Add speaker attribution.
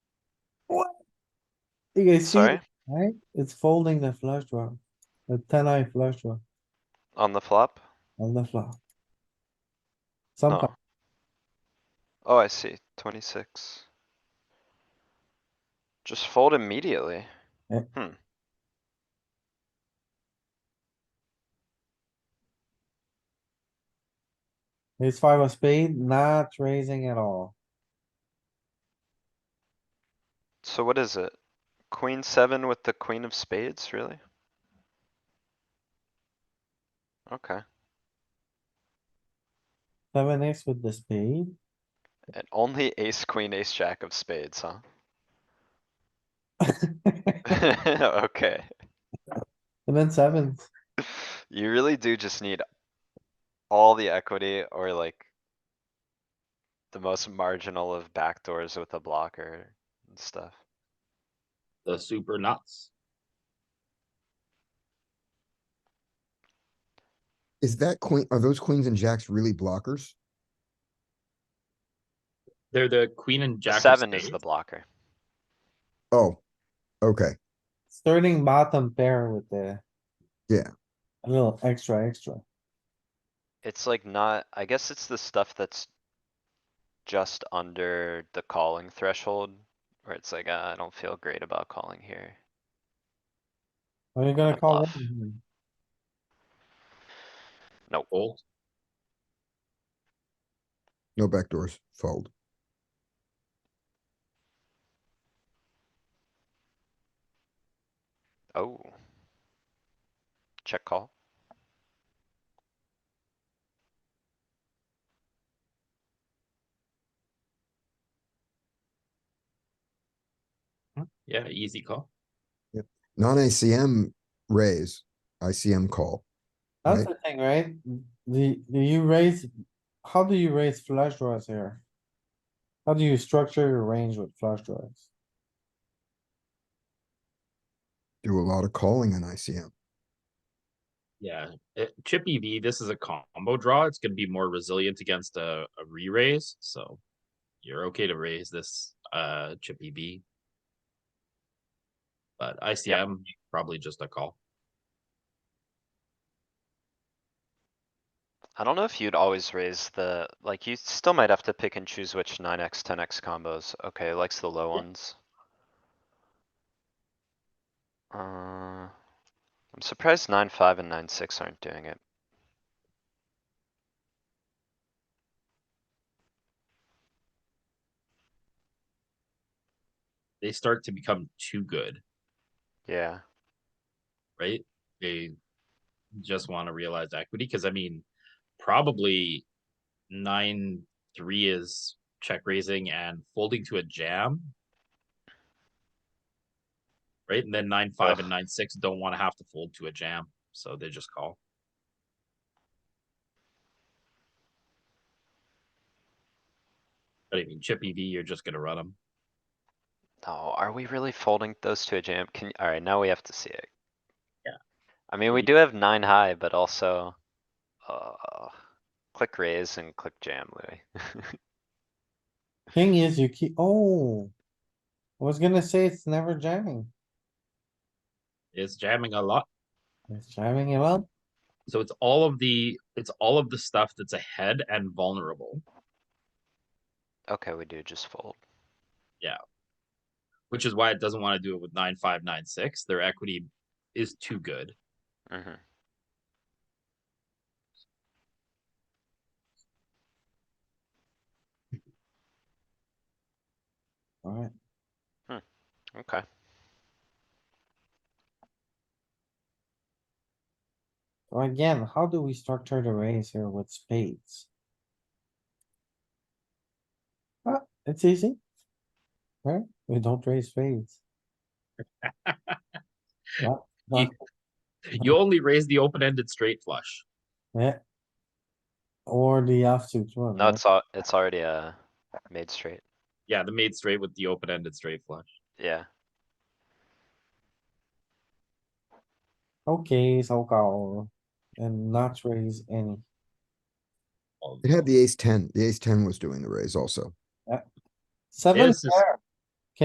Speaker 1: You guys see,
Speaker 2: Sorry,
Speaker 1: it, right? It's folding the flush draw, the ten eye flush draw
Speaker 2: on the flop?
Speaker 1: on the flop.
Speaker 2: No.
Speaker 1: Sometimes,
Speaker 2: Oh, I see, twenty-six. Just fold immediately.
Speaker 1: Yeah.
Speaker 2: Hmm.
Speaker 1: ace five of spade, not raising at all.
Speaker 2: So what is it? Queen seven with the queen of spades, really? Okay,
Speaker 1: Seven X with the spade,
Speaker 2: and only ace, queen, ace, jack of spades, huh? Okay,
Speaker 1: and then sevens.
Speaker 2: you really do just need all the equity or like the most marginal of backdoors with a blocker and stuff.
Speaker 3: the super nuts.
Speaker 4: Is that queen, are those queens and jacks really blockers?
Speaker 3: They're the queen and jack. of
Speaker 2: Seven is the
Speaker 3: spades.
Speaker 2: blocker.
Speaker 4: Oh, okay.
Speaker 1: Starting bottom pair with the.
Speaker 4: Yeah.
Speaker 1: A little extra, extra.
Speaker 2: It's like not, I guess it's the stuff that's just under the calling threshold, where it's like, uh, I don't feel great about calling here.
Speaker 1: Are you gonna
Speaker 2: A
Speaker 1: call?
Speaker 2: bluff.
Speaker 1: raising here?
Speaker 3: Fold.
Speaker 4: No backdoors, fold.
Speaker 2: Oh. Check call.
Speaker 3: Yeah, easy call.
Speaker 4: Non-ICM raise, ICM call.
Speaker 1: That's
Speaker 4: Right.
Speaker 1: the thing, right? The, do you raise, how do you raise flush draws here? How do you structure your range with flush draws?
Speaker 4: Do a lot of calling in ICM.
Speaker 3: Yeah, it, chip EV, this is a combo draw. It's gonna be more resilient against a, a re-raise, so you're okay to raise this, uh, chip EV. But ICM, probably just a call.
Speaker 2: I don't know if you'd always raise the, like, you still might have to pick and choose which nine X, ten X combos. Okay, likes the low ones. Uh, I'm surprised nine, five and nine, six aren't doing it.
Speaker 3: They start to become too good,
Speaker 2: Yeah,
Speaker 3: right? They just wanna realize equity, cause I mean, probably nine, three is check raising and folding to a jam. Right, and then nine, five and
Speaker 2: Ugh.
Speaker 3: nine, six don't wanna have to fold to a jam, so they just call. But I mean, chip EV, you're just gonna run them.
Speaker 2: no, Oh, are we really folding those to a jam? Can, alright, now we have to see it.
Speaker 3: Yeah.
Speaker 2: I mean, we
Speaker 3: Ye-
Speaker 2: do have nine high, but also, uh, click raise and click jam, Louis.
Speaker 1: Thing is, you keep, oh. I was gonna say it's never jamming.
Speaker 3: It's jamming a lot.
Speaker 1: It's jamming it up.
Speaker 3: So it's all of the, it's all of the stuff that's ahead and vulnerable.
Speaker 2: Okay, we do just fold.
Speaker 3: which is why it doesn't want to do it with nine five nine six. Their equity is too good.
Speaker 2: Mm-hmm.
Speaker 1: Alright,
Speaker 2: Okay.
Speaker 1: so again, how do we structure the raise here with spades? Ah, it's easy. Right? We don't raise spades. Yeah,
Speaker 3: You- You only raise the open ended straight flush.
Speaker 1: Yeah. Or the offsuit one.
Speaker 2: No,
Speaker 1: right?
Speaker 2: it's all, it's already, uh, made straight.
Speaker 3: Yeah, the made straight with the open ended straight flush.
Speaker 2: Yeah,
Speaker 1: Okay, so call and not raise any.
Speaker 3: All of
Speaker 4: It
Speaker 3: them.
Speaker 4: had the ace ten, the ace ten was doing the raise also.
Speaker 1: Seven
Speaker 3: This is-
Speaker 1: pair,